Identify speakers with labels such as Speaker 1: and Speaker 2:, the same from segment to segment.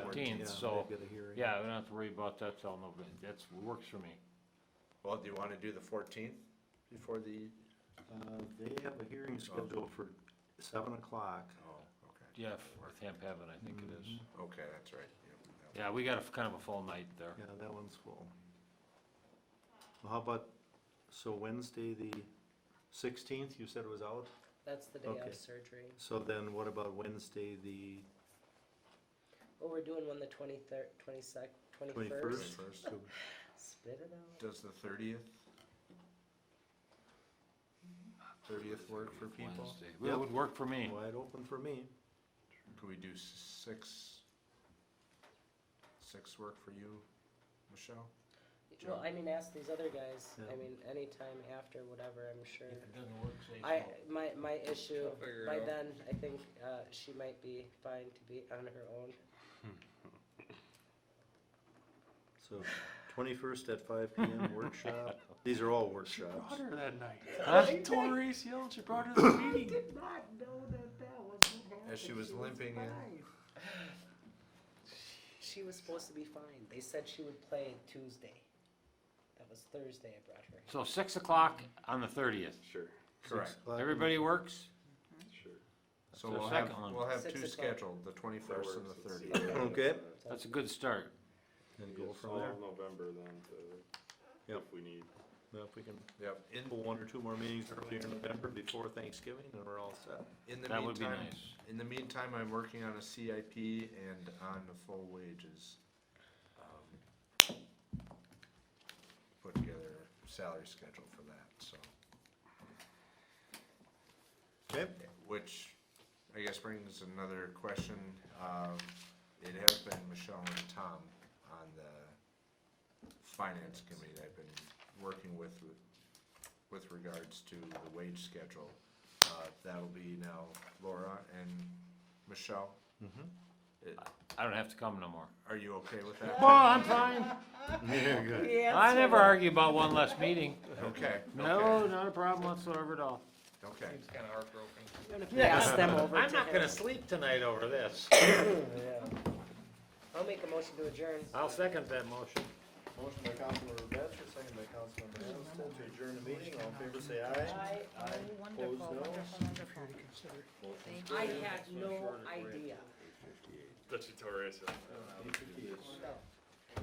Speaker 1: fourteenth, so,
Speaker 2: they've got a hearing.
Speaker 1: yeah, we don't have to worry about that till November, that's, works for me.
Speaker 3: Well, do you wanna do the fourteenth before the?
Speaker 2: Uh, they have a hearing scheduled for seven o'clock.
Speaker 3: Oh, okay.
Speaker 1: Yeah, with Hemp Heaven, I think it is.
Speaker 3: Okay, that's right. yeah, yeah.
Speaker 1: Yeah, we got a, f- kind of a full night there.
Speaker 2: Yeah, that one's full. Well, How about, so Wednesday, the sixteenth, you said was out?
Speaker 4: That's the day
Speaker 2: Okay.
Speaker 4: of surgery.
Speaker 2: So then what about Wednesday, the
Speaker 4: Well, we're doing one the 23rd, 22nd, 21st.
Speaker 2: twenty-first?
Speaker 3: First.
Speaker 4: Spit it out.
Speaker 3: Does the thirtieth? Thirtieth work for people?
Speaker 1: Wednesday. Well, It would work for me.
Speaker 2: Wide open for me.
Speaker 3: Could we do s- six? Six work for you, Michelle?
Speaker 4: Well, I mean, ask these other guys.
Speaker 2: Yeah.
Speaker 4: I mean, anytime after whatever, I'm sure.
Speaker 1: If it doesn't work, say
Speaker 4: I,
Speaker 1: so.
Speaker 4: my, my issue,
Speaker 5: She'll figure it
Speaker 4: by
Speaker 5: out.
Speaker 4: then, I think, uh, she might be fine to be on her own.
Speaker 2: So twenty-first at five PM workshop. These are all workshops.
Speaker 6: her that night.
Speaker 1: Huh?
Speaker 6: She told Maurice Hill, she brought her to the meeting.
Speaker 5: not know that that was
Speaker 3: As she was limping in.
Speaker 4: She was supposed to be fine. They said she would play Tuesday. That was Thursday I brought her.
Speaker 1: So six o'clock on the thirtieth.
Speaker 6: Sure,
Speaker 2: Six
Speaker 3: Correct.
Speaker 2: o'clock.
Speaker 1: Everybody works?
Speaker 6: sure.
Speaker 3: So
Speaker 1: the
Speaker 3: we'll have,
Speaker 1: second one.
Speaker 3: we'll have
Speaker 4: Six
Speaker 3: two
Speaker 4: o'clock.
Speaker 3: scheduled, the twenty-first and the thirtieth.
Speaker 2: Okay.
Speaker 1: That's a good start.
Speaker 2: And go from there.
Speaker 6: November then to,
Speaker 2: Yep.
Speaker 6: if we need.
Speaker 2: Now, if we can
Speaker 3: Yep, in,
Speaker 2: pull one or two more meetings earlier in November before Thanksgiving, then we're all set.
Speaker 3: in the
Speaker 1: That would be
Speaker 3: meantime,
Speaker 1: nice.
Speaker 3: in the meantime, I'm working on a CIP and on the full wages. um, Put together a salary schedule for that, so,
Speaker 2: Okay.
Speaker 3: which I guess brings another question. Um, It has been Michelle and Tom on the finance committee I've been working with, with regards to the wage schedule. Uh, That'll be now Laura and Michelle.
Speaker 1: I don't have to come no more.
Speaker 3: Are you okay with that?
Speaker 1: Oh, I'm fine.
Speaker 2: Very good.
Speaker 1: I never argue about one less meeting.
Speaker 3: Okay.
Speaker 1: No, not a problem whatsoever at all.
Speaker 3: Okay.
Speaker 5: Seems kinda heartbroken.
Speaker 4: Pass them over
Speaker 1: I'm
Speaker 4: to
Speaker 1: not
Speaker 4: him.
Speaker 1: gonna sleep tonight over this.
Speaker 4: Yeah. I'll make a motion to adjourn.
Speaker 2: Uh,
Speaker 1: I'll second that motion.
Speaker 2: Motion by Councilmember Batchor, second by Councilmember Anastas, to adjourn the meeting, all in favor say aye.
Speaker 4: I,
Speaker 2: Opposed,
Speaker 7: Wonderful,
Speaker 2: no.
Speaker 7: wonderful, wonderful. Thank you.
Speaker 4: I had no idea.
Speaker 6: That's Torres.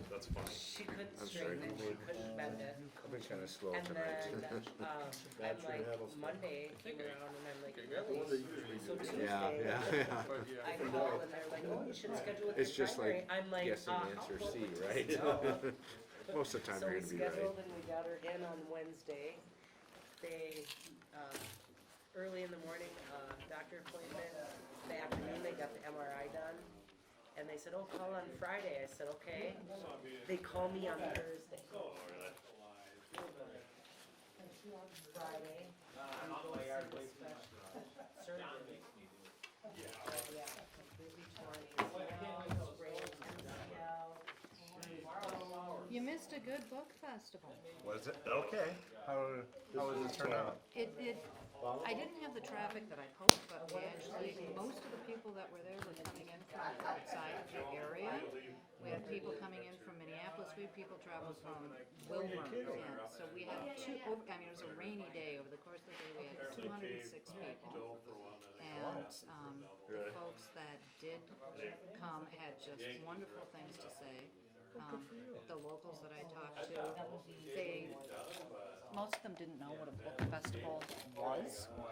Speaker 6: That's funny.
Speaker 4: She couldn't straighten it, she couldn't bend it.
Speaker 3: I've been kinda slow
Speaker 4: And then,
Speaker 3: tonight.
Speaker 4: um, I'm like, Monday came around and I'm like, really? So
Speaker 3: Yeah,
Speaker 4: Tuesday,
Speaker 3: yeah, yeah.
Speaker 4: I called and they're like, oh, you should schedule it
Speaker 3: It's
Speaker 4: the
Speaker 3: just
Speaker 4: primary.
Speaker 3: like
Speaker 4: I'm like, uh,
Speaker 3: Guessing
Speaker 4: how
Speaker 3: answer
Speaker 4: close
Speaker 3: C,
Speaker 4: would you
Speaker 3: right?
Speaker 4: know?
Speaker 3: Most of the time
Speaker 4: So
Speaker 3: you're
Speaker 4: we
Speaker 3: gonna be right.
Speaker 4: scheduled and we got her in on Wednesday. They, um, early in the morning, uh, doctor appointment, the afternoon, they got the MRI done. And they said, oh, call on Friday. I said, okay. They call me on Thursday. Friday. we go see the special- surgeon. Yeah, completely torn, ACL, sprained MCL.
Speaker 7: You missed a good book festival.
Speaker 3: Was it? Okay. How, how was it turn out?
Speaker 7: It, it, I didn't have the traffic that I'd hoped, but we actually, most of the people that were there were coming in from outside of the area. We had people coming in from Minneapolis, we had people traveling from Wilmer, and so we had two, over- I mean, it was a rainy day, over the course of the day, we had two hundred and six people. And, um, the folks that did come had just wonderful things to say. Um, the locals that I talked to, they most of them didn't know what a book festival was, um,